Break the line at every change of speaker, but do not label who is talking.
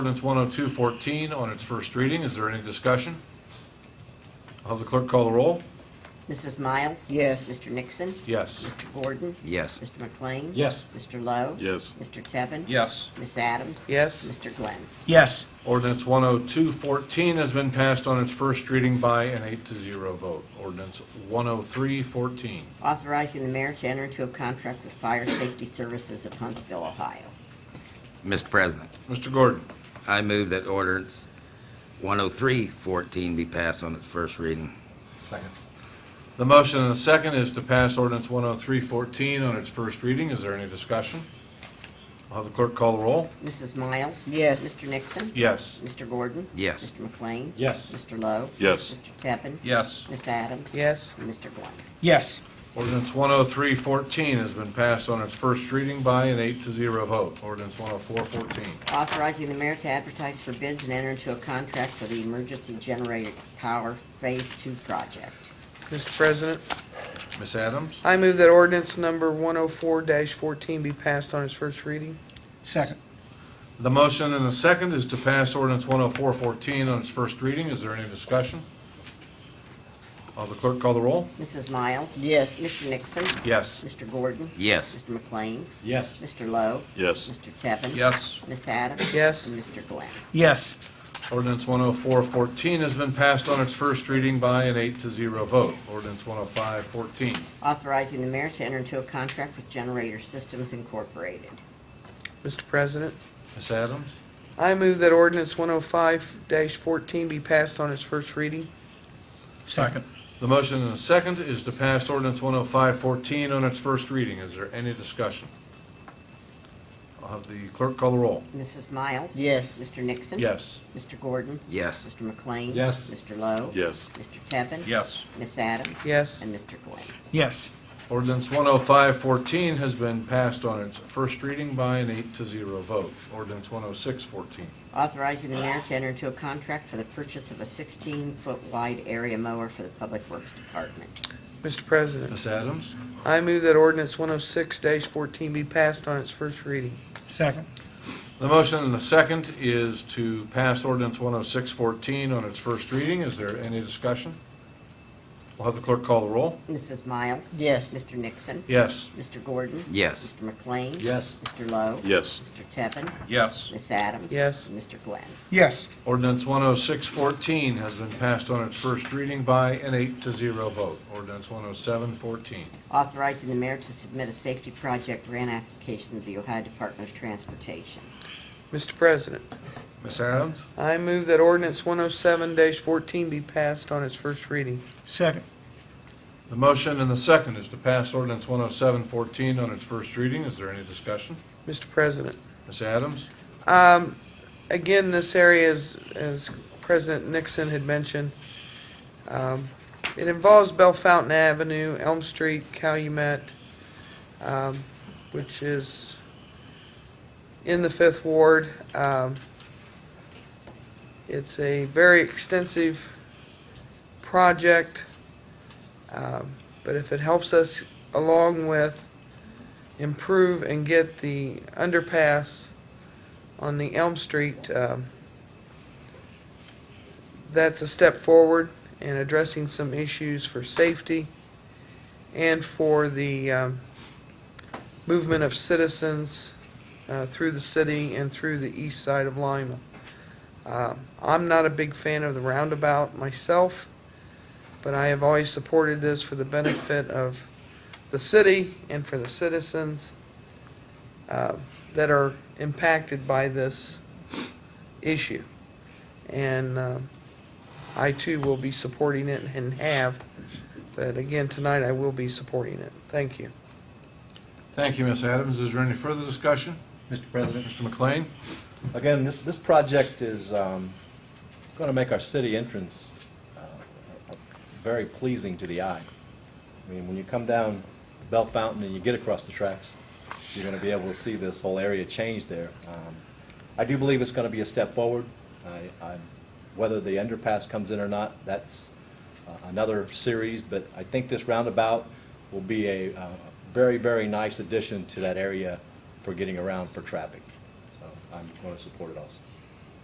Ordinance 10214 on its first reading. Is there any discussion? I'll have the clerk call the roll.
Mrs. Miles?
Yes.
Mr. Nixon?
Yes.
Mr. Gordon?
Yes.
Mr. McLean?
Yes.
Mr. Lowe?
Yes.
Mr. Tevin?
Yes.
Ms. Adams?
Yes.
Mr. Glenn?
Yes.
Ordinance 10214 has been passed on its first reading by an eight to zero vote. Ordinance 10314.
Authorizing the mayor to enter into a contract with Fire Safety Services of Huntsville, Ohio.
Mr. President,
Mr. Gordon,
I move that ordinance 103-14 be passed on its first reading.
the motion and the second is to pass ordinance 10314 on its first reading. Is there any discussion? I'll have the clerk call the roll.
Mrs. Miles?
Yes.
Mr. Nixon?
Yes.
Mr. Gordon?
Yes.
Mr. McLean?
Yes.
Mr. Lowe?
Yes.
Mr. Tevin?
Yes.
Ms. Adams?
Yes.
And Mr. Glenn?
Yes.
Ordinance 10314 has been passed on its first reading by an eight to zero vote. Ordinance 10414.
Authorizing the mayor to advertise for bids and enter into a contract for the Emergency Generator Power Phase Two project.
Mr. President,
Ms. Adams?
I move that ordinance number 104-14 be passed on its first reading.
Second.
The motion and the second is to pass ordinance 10414 on its first reading. Is there any discussion? Will the clerk call the roll?
Mrs. Miles?
Yes.
Mr. Nixon?
Yes.
Mr. Gordon?
Yes.
Mr. McLean?
Yes.
Mr. Lowe?
Yes.
Mr. Tevin?
Yes.
Ms. Adams?
Yes.
And Mr. Glenn?
Yes.
Ordinance 10414 has been passed on its first reading by an eight to zero vote. Ordinance 10514.
Authorizing the mayor to enter into a contract with Generator Systems Incorporated.
Mr. President,
Ms. Adams?
I move that ordinance 105-14 be passed on its first reading.
Second.
The motion and the second is to pass ordinance 10514 on its first reading. Is there any discussion? I'll have the clerk call the roll.
Mrs. Miles?
Yes.
Mr. Nixon?
Yes.
Mr. Gordon?
Yes.
Mr. McLean?
Yes.
Mr. Lowe?
Yes.
Mr. Tevin?
Yes.
Ms. Adams?
Yes.
And Mr. Glenn?
Yes.
Ordinance 10514 has been passed on its first reading by an eight to zero vote. Ordinance 10614.
Authorizing the mayor to enter into a contract for the purchase of a 16-foot wide area mower for the Public Works Department.
Mr. President,
Ms. Adams?
I move that ordinance 106-14 be passed on its first reading.
Second.
The motion and the second is to pass ordinance 10614 on its first reading. Is there any discussion? We'll have the clerk call the roll.
Mrs. Miles?
Yes.
Mr. Nixon?
Yes.
Mr. Gordon?
Yes.
Mr. McLean?
Yes.
Mr. Lowe?
Yes.
Mr. Tevin?
Yes.
Ms. Adams?
Yes.
And Mr. Glenn?
Yes.
Ordinance 10614 has been passed on its first reading by an eight to zero vote. Ordinance 10714.
Authorizing the mayor to submit a safety project grant application to the Ohio Department of Transportation.
Mr. President,
Ms. Adams?
I move that ordinance 107-14 be passed on its first reading.
Second.
The motion and the second is to pass ordinance 10714 on its first reading. Is there any discussion?
Mr. President,
Ms. Adams?
Um, again, this area is, as President Nixon had mentioned, um, it involves Bell Fountain Avenue, Elm Street, Calumet, um, which is in the Fifth Ward. Um, it's a very extensive project, um, but if it helps us along with improve and get the underpass, on the Elm Street, um, that's a step forward in addressing some issues for safety and for the um, movement of citizens uh, through the city and through the east side of Lima. Um, I'm not a big fan of the roundabout myself, but I have always supported this for the benefit of the city and for the citizens. Um, that are impacted by this issue. And um, I too will be supporting it and have, but again, tonight I will be supporting it. Thank you.
Thank you, Ms. Adams. Is there any further discussion?
Mr. President,
Mr. McLean?
again, this, this project is um, going to make our city entrance uh, very pleasing to the eye. I mean, when you come down Bell Fountain and you get across the tracks, you're going to be able to see this whole area change there. Um, I do believe it's going to be a step forward. I- I'm- Whether the underpass comes in or not, that's uh, another series, but I think this roundabout will be a uh, very, very nice addition to that area for getting around for traffic. So I'm going to support it also.